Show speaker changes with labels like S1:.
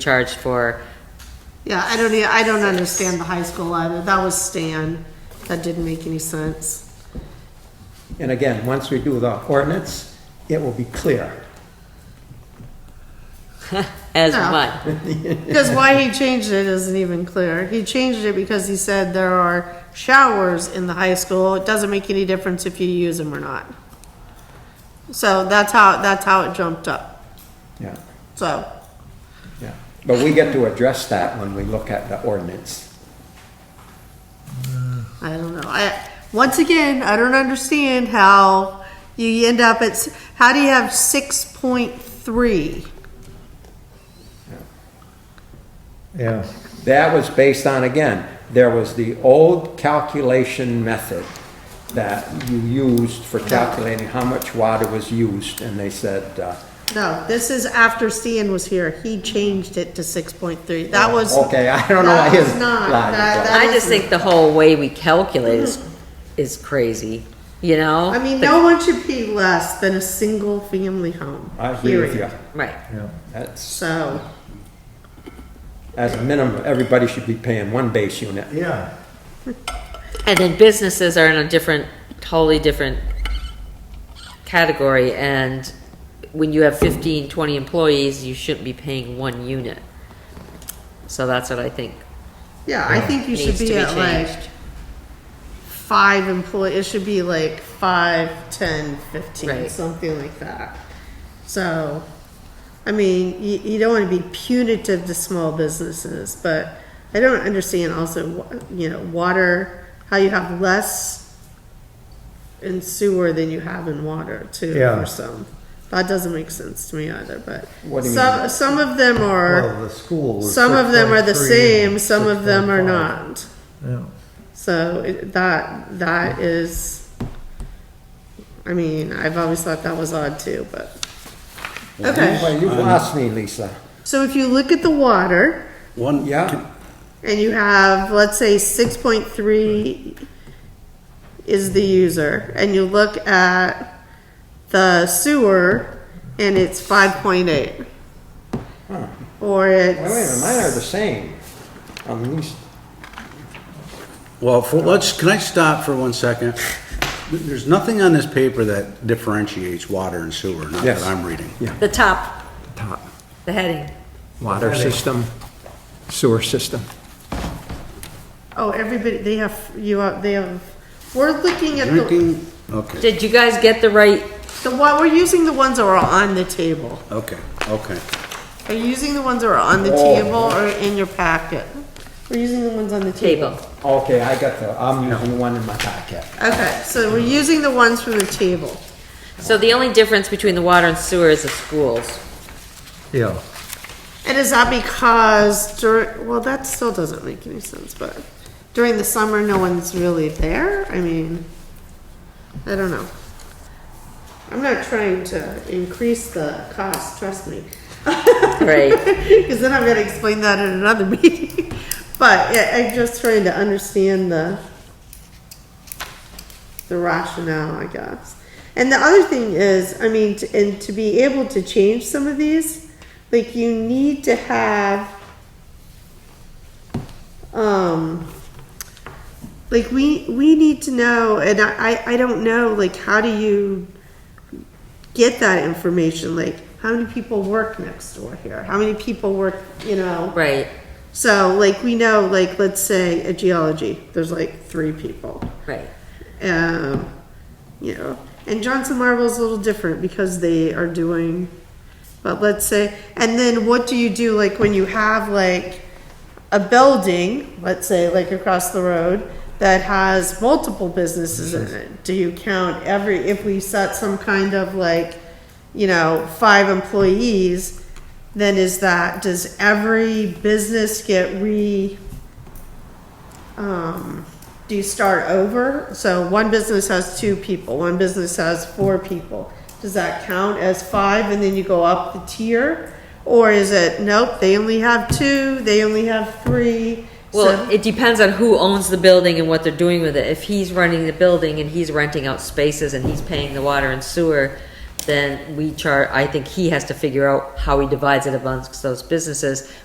S1: charged for,
S2: Yeah, I don't, e- I don't understand the high school either. That was Stan. That didn't make any sense.
S3: And again, once we do the ordinance, it will be clear.
S1: as
S2: No.
S1: what?
S2: Because why he changed it isn't even clear. He changed it because he said there are showers in the high school. It doesn't make any difference if you use them or not. So that's how, that's how it jumped up.
S3: Yeah,
S2: So,
S3: yeah. But we get to address that when we look at the ordinance.
S2: I don't know. I, once again, I don't understand how you end up at, s- how do you have six point three?
S4: Yeah,
S3: That was based on, again, there was the old calculation method that you used for calculating how much water was used, and they said, uh,
S2: No, this is after Stan was here. He changed it to six point three. That was.
S3: okay, I don't know
S2: That
S3: his
S2: was not-
S3: logic,
S2: that-
S3: but-
S2: that-
S1: I just think the whole way we calculate is, is crazy, you know?
S2: Mm-hmm. I mean,
S1: The-
S2: no one should pay less than a single family home.
S3: I agree with you.
S2: period.
S1: Right,
S4: yeah.
S3: That's,
S2: So,
S3: as a minimum, everybody should be paying one base unit.
S4: Yeah.
S1: and then businesses are in a different, totally different category, and when you have 15, 20 employees, you shouldn't be paying one unit. So that's what I think
S2: yeah, I think you should
S1: needs to be
S2: be at like
S1: changed.
S2: five employee, it should be like five, ten, fifteen,
S1: Right.
S2: something like that. So, I mean, you, you don't wanna be punitive to small businesses, but I don't understand also, wh- you know, water, how you have less in sewer than you have in water too,
S4: Yeah.
S2: for some. That doesn't make sense to me either, but
S3: What do you
S2: some, some of them are,
S4: Well, the school was
S2: some of them are the
S4: 6.3
S2: same,
S4: and
S2: some of them are
S4: 6.5.
S2: not.
S4: Yeah.
S2: So it, that that is, I mean, I've always thought that was odd too, but okay.
S3: Well, you've lost me, Lisa.
S2: So if you look at the water
S5: One,
S3: Yeah.
S5: can-
S2: and you have, let's say, six point three is the user, and you look at the sewer and it's five point eight. Or
S3: Wait a minute, mine
S2: it's,
S3: are the same on these.
S5: well, for, let's, can I stop for one second? There's nothing on this paper that differentiates water and sewer, not that
S3: Yes.
S5: I'm reading.
S1: the top,
S3: Top.
S1: the heading.
S3: Water system, sewer system.
S2: oh, everybody, they have, you have, they have, we're looking at the,
S5: Drinking, okay,
S1: Did you guys get the right,
S2: the, one- we're using the ones that are on the table.
S5: okay, okay.
S2: Are you using the ones that are on the
S3: Oh.
S2: table or in your packet? We're using the ones on the
S1: Table.
S2: table.
S3: Okay, I got the, I'm using the one in my pocket.
S2: Okay, so we're using the ones from the table.
S1: so the only difference between the water and sewer is the schools.
S4: Yeah,
S2: And is that because during, well, that still doesn't make any sense, but during the summer, no one's really there? I mean, I don't know. I'm not trying to increase the cost, trust me.
S1: Right.
S2: Because then I'm gonna explain that in another meeting. But yeah, I'm just trying to understand the the rationale, I guess. And the other thing is, I mean, t- and to be able to change some of these, like you need to have um like we we need to know and I, I I don't know like how do you get that information like how many people work next door here how many people work you know
S1: Right,
S2: so like we know like let's say a geology there's like three people
S1: right.
S2: um, you know, and Johnson Marvel's a little different because they are doing, but let's say, and then what do you do like when you have like a building, let's say like across the road, that has multiple businesses in it? Do you count every, if we set some kind of like, you know, five employees, then is that, does every business get re? um, do you start over? So one business has two people, one business has four people. Does that count as five and then you go up the tier? Or is it, nope, they only have two, they only have three?
S1: Well,
S2: So,
S1: it depends on who owns the building and what they're doing with it. If he's running the building and he's renting out spaces and he's paying the water and sewer, then we char, I think he has to figure out how he divides it amongst those businesses.